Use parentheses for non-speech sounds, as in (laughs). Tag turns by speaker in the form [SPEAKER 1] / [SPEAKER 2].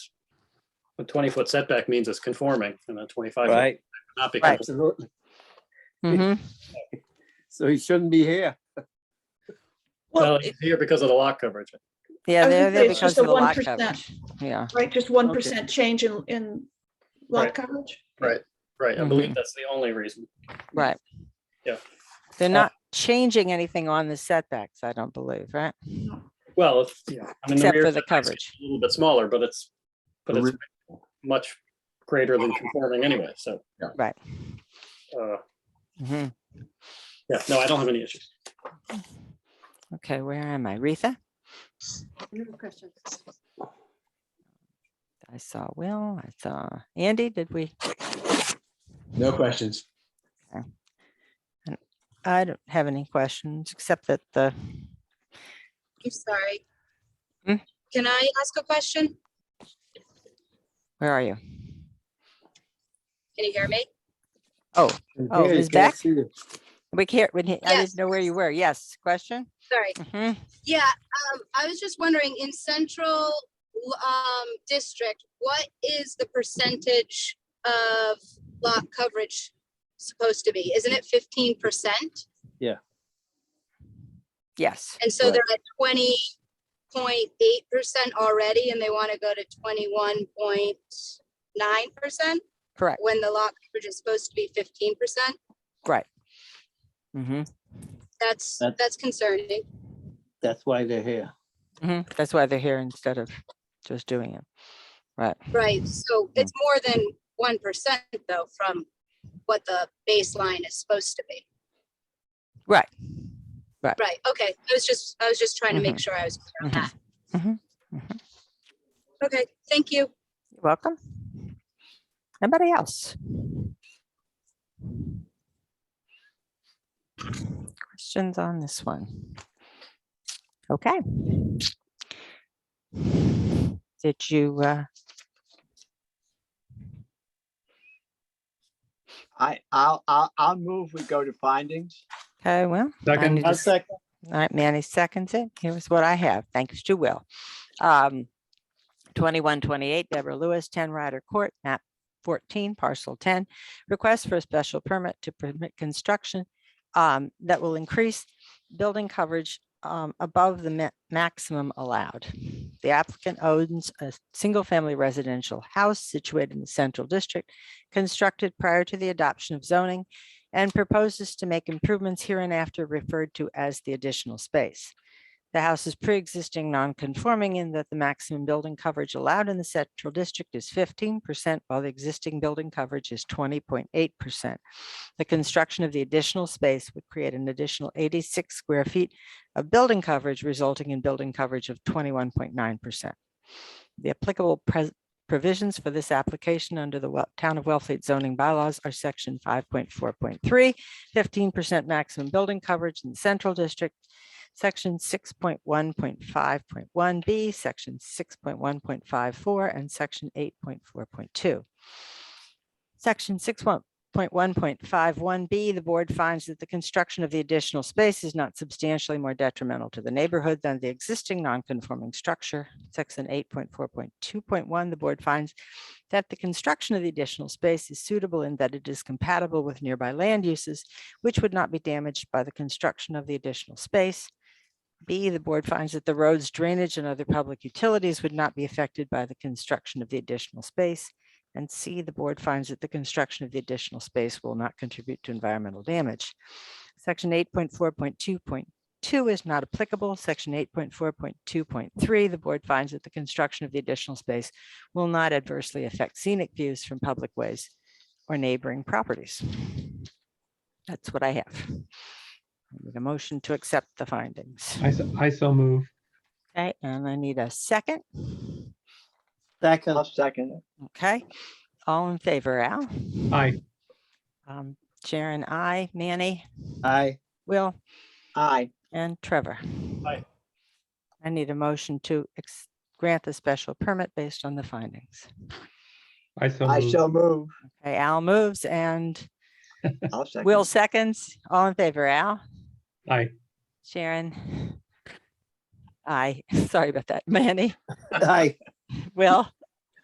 [SPEAKER 1] a twenty-foot setback means it's conforming, and a twenty-five would
[SPEAKER 2] right?
[SPEAKER 1] not be conforming.
[SPEAKER 3] Right.
[SPEAKER 4] Absolutely.
[SPEAKER 3] Mhm.
[SPEAKER 4] So he shouldn't be here.
[SPEAKER 1] Well,
[SPEAKER 5] Well,
[SPEAKER 1] it's here because of the lot coverage.
[SPEAKER 3] Yeah,
[SPEAKER 5] I was
[SPEAKER 3] they're there
[SPEAKER 5] gonna say it's
[SPEAKER 3] because
[SPEAKER 5] just
[SPEAKER 3] of
[SPEAKER 5] a
[SPEAKER 3] the lot
[SPEAKER 5] 1%.
[SPEAKER 3] coverage. Yeah,
[SPEAKER 5] right, just one percent change in, in
[SPEAKER 1] Right.
[SPEAKER 5] lot coverage?
[SPEAKER 1] Right, right. I
[SPEAKER 3] Mm-hmm.
[SPEAKER 1] believe that's the only reason.
[SPEAKER 3] right.
[SPEAKER 1] Yeah.
[SPEAKER 3] They're
[SPEAKER 1] Uh,
[SPEAKER 3] not changing anything on the setbacks, I don't believe, right?
[SPEAKER 1] Well, if, yeah. I mean,
[SPEAKER 3] Except
[SPEAKER 1] rear
[SPEAKER 3] for the
[SPEAKER 1] setback's
[SPEAKER 3] coverage.
[SPEAKER 1] A little bit smaller, but it's, but
[SPEAKER 6] The
[SPEAKER 1] it's much greater than conforming anyway, so.
[SPEAKER 3] Right.
[SPEAKER 1] Uh,
[SPEAKER 5] Mm-hmm.
[SPEAKER 3] Mhm.
[SPEAKER 1] yeah, no, I don't have any issues.
[SPEAKER 3] Okay, where am I? Retha?
[SPEAKER 5] No questions.
[SPEAKER 3] I saw Will, I saw Andy, did we?
[SPEAKER 6] No questions.
[SPEAKER 3] I don't have any questions, except that the,
[SPEAKER 7] I'm sorry.
[SPEAKER 3] Hmm?
[SPEAKER 7] Can I ask a question?
[SPEAKER 3] where are you?
[SPEAKER 7] Can you hear me?
[SPEAKER 3] Oh,
[SPEAKER 4] Here, he
[SPEAKER 3] he's
[SPEAKER 4] can't
[SPEAKER 3] back?
[SPEAKER 4] see you.
[SPEAKER 3] We can't, we didn't- I
[SPEAKER 7] Yes.
[SPEAKER 3] didn't know where you were. Yes, question?
[SPEAKER 7] Sorry.
[SPEAKER 3] Mhm.
[SPEAKER 4] Mm-hmm.
[SPEAKER 7] Yeah, um, I was just wondering, in central, um, district, what is the percentage of lot coverage supposed to be? Isn't it fifteen percent?
[SPEAKER 3] Yes,
[SPEAKER 7] And so
[SPEAKER 4] Right.
[SPEAKER 7] they're at twenty point eight percent already, and they want to go to twenty-one point nine percent
[SPEAKER 3] correct,
[SPEAKER 7] when the lot coverage is supposed to be fifteen percent?
[SPEAKER 3] right. hmm
[SPEAKER 7] That's,
[SPEAKER 4] That-
[SPEAKER 7] that's concerning.
[SPEAKER 4] That's why they're here.
[SPEAKER 3] hmm That's why they're here instead of just doing it. Right,
[SPEAKER 7] Right, so it's more than one percent though from what the baseline is supposed to be.
[SPEAKER 3] right.
[SPEAKER 7] Right, okay, I was just, I was just trying to make sure I was clear on
[SPEAKER 3] Mhm.
[SPEAKER 7] that.
[SPEAKER 3] Mhm. Mhm.
[SPEAKER 7] Okay, thank you.
[SPEAKER 3] You're welcome. Anybody else? Questions on this one? Okay. Did you, uh,
[SPEAKER 8] I, I'll, I'll, I'll move, we go to findings.
[SPEAKER 3] okay, well,
[SPEAKER 1] Second.
[SPEAKER 3] need to
[SPEAKER 4] I'll
[SPEAKER 3] s-
[SPEAKER 4] second.
[SPEAKER 3] all right, Manny seconds it. Here's what I have. Thanks to Will. Um, twenty-one twenty-eight Deborah Lewis, ten Ryder Court, map fourteen, parcel ten. Request for a special permit to permit construction um, that will increase building coverage um, above the ma- maximum allowed. The applicant owns a single-family residential house situated in the central district, constructed prior to the adoption of zoning and proposes to make improvements hereinafter referred to as the additional space. The house is pre-existing non-conforming in that the maximum building coverage allowed in the central district is fifteen percent, while the existing building coverage is twenty point eight percent. The construction of the additional space would create an additional eighty-six square feet of building coverage, resulting in building coverage of twenty-one point nine percent. The applicable pres- Provisions for this application under the Wel- Town of Wellfleet zoning bylaws are section 5.4.3, 15% maximum building coverage in the central district, section 6.1.5.1B, section 6.1.54, and section 8.4.2. Section 6.1.51B, the board finds that the construction of the additional space is not substantially more detrimental to the neighborhood than the existing non-conforming structure. Section 8.4.2.1, the board finds that the construction of the additional space is suitable in that it is compatible with nearby land uses, which would not be damaged by the construction of the additional space. B, the board finds that the roads, drainage, and other public utilities would not be affected by the construction of the additional space. And C, the board finds that the construction of the additional space will not contribute to environmental damage. Section eight point four point two point two is not applicable. Section eight point four point two point three, the board finds that the construction of the additional space will not adversely affect scenic views from public ways or neighboring properties. That's what I have. I Need a motion to accept the findings.
[SPEAKER 9] I, so- I so move.
[SPEAKER 3] Okay, and I need a second.
[SPEAKER 4] Second.
[SPEAKER 8] I'll second it.
[SPEAKER 3] Okay, all in favor, Al?
[SPEAKER 9] Aye.
[SPEAKER 3] Um, Sharon, I, Manny,
[SPEAKER 4] Aye.
[SPEAKER 3] Will,
[SPEAKER 8] Aye.
[SPEAKER 3] and Trevor.
[SPEAKER 1] Aye.
[SPEAKER 3] I need a motion to ex- grant the special permit based on the findings.
[SPEAKER 9] I so
[SPEAKER 8] I
[SPEAKER 9] move.
[SPEAKER 8] shall move.
[SPEAKER 3] Okay, Al moves and
[SPEAKER 8] I'll second.
[SPEAKER 3] Will seconds. All in favor, Al?
[SPEAKER 9] Aye.
[SPEAKER 3] (laughs) Sharon? Aye, sorry about that. Manny,
[SPEAKER 4] Aye.
[SPEAKER 3] Will,